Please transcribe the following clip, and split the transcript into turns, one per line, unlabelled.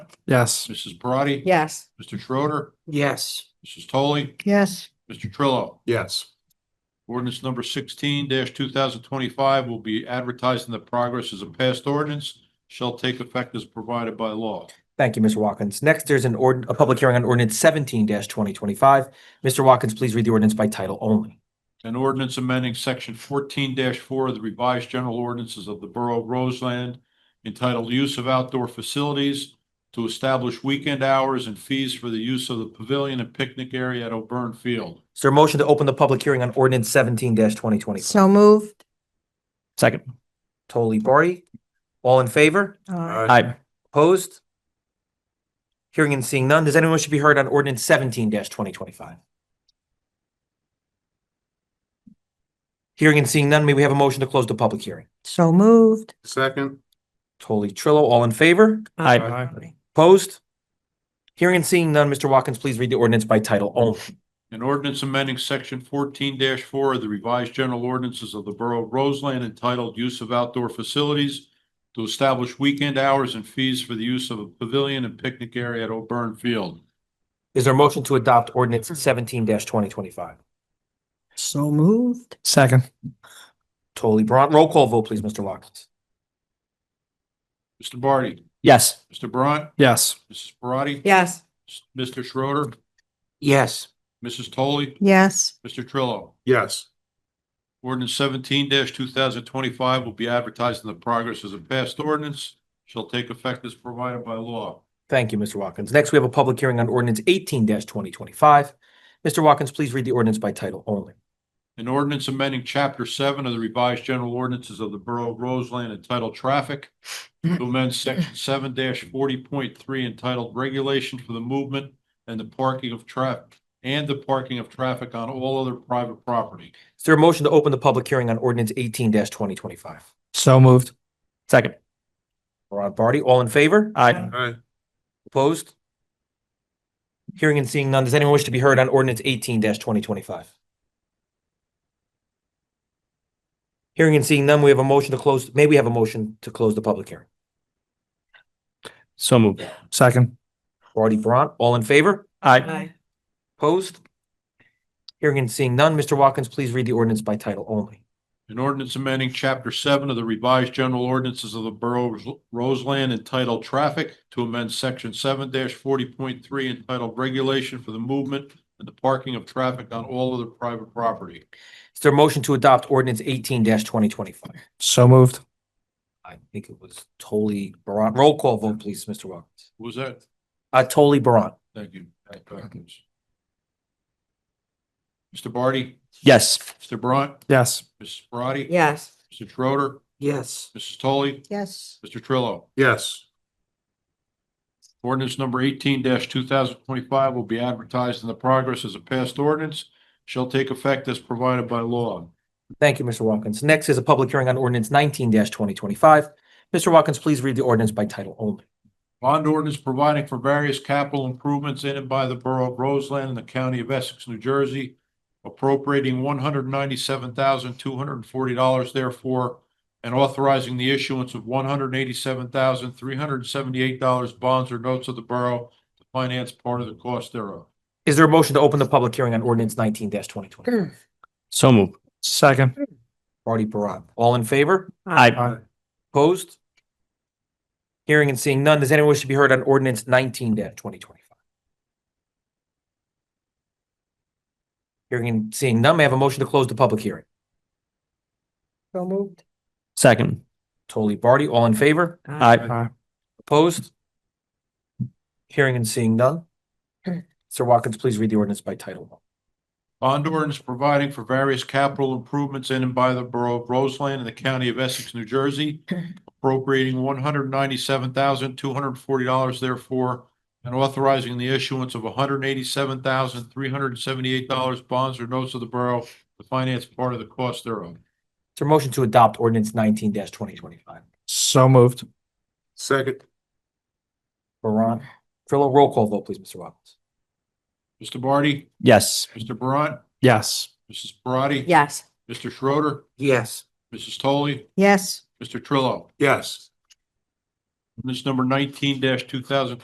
Yes.
Mrs. Parati?
Yes.
Mr. Schroeder,
Yes.
Mrs. Toley,
Yes.
Mr. Trillo.
Yes.
Ordinance number sixteen two thousand twenty-five will be advertised in the progress as a passed ordinance, shall take effect as provided by law.
Thank you, Mr. Watkins. Next, there's an ord, a public hearing on ordinance seventeen twenty twenty-five. Mr. Watkins, please read the ordinance by title only.
An ordinance amending section fourteen four of the revised general ordinances of the Borough of Roseland entitled Use of Outdoor Facilities to establish weekend hours and fees for the use of the pavilion and picnic area at O'Byrne Field.
Is there a motion to open the public hearing on ordinance seventeen twenty twenty-five?
So moved.
Second.
Totally party. All in favor?
Aye.
Aye.
Opposed? Hearing and seeing none. Does anyone wish to be heard on ordinance seventeen twenty twenty-five? Hearing and seeing none, may we have a motion to close the public hearing?
So moved.
Second.
Totally Trillo, all in favor?
Aye.
Opposed? Hearing and seeing none, Mr. Watkins, please read the ordinance by title only.
An ordinance amending section fourteen four of the revised general ordinances of the Borough of Roseland entitled Use of Outdoor Facilities to establish weekend hours and fees for the use of a pavilion and picnic area at O'Byrne Field.
Is there a motion to adopt ordinance seventeen twenty twenty-five?
So moved.
Second.
Totally Brant, roll call vote, please, Mr. Watkins.
Mr. Barty,
Yes.
Mr. Brant,
Yes.
Mrs. Parati,
Yes.
Mr. Schroeder,
Yes.
Mrs. Toley,
Yes.
Mr. Trillo.
Yes.
Ordinance seventeen two thousand twenty-five will be advertised in the progress as a passed ordinance, shall take effect as provided by law.
Thank you, Mr. Watkins. Next, we have a public hearing on ordinance eighteen twenty twenty-five. Mr. Watkins, please read the ordinance by title only.
An ordinance amending chapter seven of the revised general ordinances of the Borough of Roseland entitled Traffic to amend section seven forty point three entitled Regulation for the Movement and the Parking of Traffic and the Parking of Traffic on all other private property.
Is there a motion to open the public hearing on ordinance eighteen twenty twenty-five?
So moved. Second.
Ron Barty, all in favor?
Aye.
Aye.
Opposed? Hearing and seeing none, does anyone wish to be heard on ordinance eighteen twenty twenty-five? Hearing and seeing none, we have a motion to close, may we have a motion to close the public hearing?
So moved. Second.
Barty, Brant, all in favor?
Aye.
Opposed? Hearing and seeing none, Mr. Watkins, please read the ordinance by title only.
An ordinance amending chapter seven of the revised general ordinances of the Borough of Roseland entitled Traffic to amend section seven forty point three entitled Regulation for the Movement and the Parking of Traffic on all other private property.
Is there a motion to adopt ordinance eighteen twenty twenty-five?
So moved.
I think it was Tolly Baron. Roll call vote, please, Mr. Watkins.
What was that?
Uh, Tolly Baron.
Thank you. Pat Perkins. Mr. Barty,
Yes.
Mr. Brunt,
Yes.
Mrs. Parati.
Yes.
Mr. Schroeder,
Yes.
Mrs. Toley,
Yes.
Mr. Trillo.
Yes.
Ordinance number eighteen two thousand twenty-five will be advertised in the progress as a passed ordinance, shall take effect as provided by law.
Thank you, Mr. Watkins. Next is a public hearing on ordinance nineteen twenty twenty-five. Mr. Watkins, please read the ordinance by title only.
Bond ordinance providing for various capital improvements in and by the Borough of Roseland and the County of Essex, New Jersey, appropriating one hundred ninety-seven thousand, two hundred and forty dollars therefore, and authorizing the issuance of one hundred eighty-seven thousand, three hundred and seventy-eight dollars bonds or notes of the borough to finance part of the cost thereof.
Is there a motion to open the public hearing on ordinance nineteen twenty twenty?
So moved. Second.
Barty Baron. All in favor?
Aye.
Opposed? Hearing and seeing none, does anyone wish to be heard on ordinance nineteen twenty twenty-five? Hearing and seeing none, may I have a motion to close the public hearing?
So moved.
Second.
Tolly Barty, all in favor?
Aye.
Opposed? Hearing and seeing none. Sir Watkins, please read the ordinance by title. only.
Bond ordinance providing for various capital improvements in and by the Borough of Roseland and the County of Essex, New Jersey, appropriating one hundred ninety-seven thousand, two hundred and forty dollars therefore, and authorizing the issuance of hundred and eighty-seven thousand, three hundred and seventy-eight dollars bonds or notes of the borough to finance part of the cost thereof.
Is there a motion to adopt ordinance nineteen twenty twenty-five?
So moved.
Second.
Baron, Trillo, roll call vote, please, Mr. Watkins.
Mr. Barty,
Yes.
Mr. Barant,
Yes.
Mrs. Parati.
Yes.
Mr. Schroeder,
Yes.
Mrs. Toley,
Yes.
Mr. Trillo.
Yes.
Ordinance number nineteen two thousand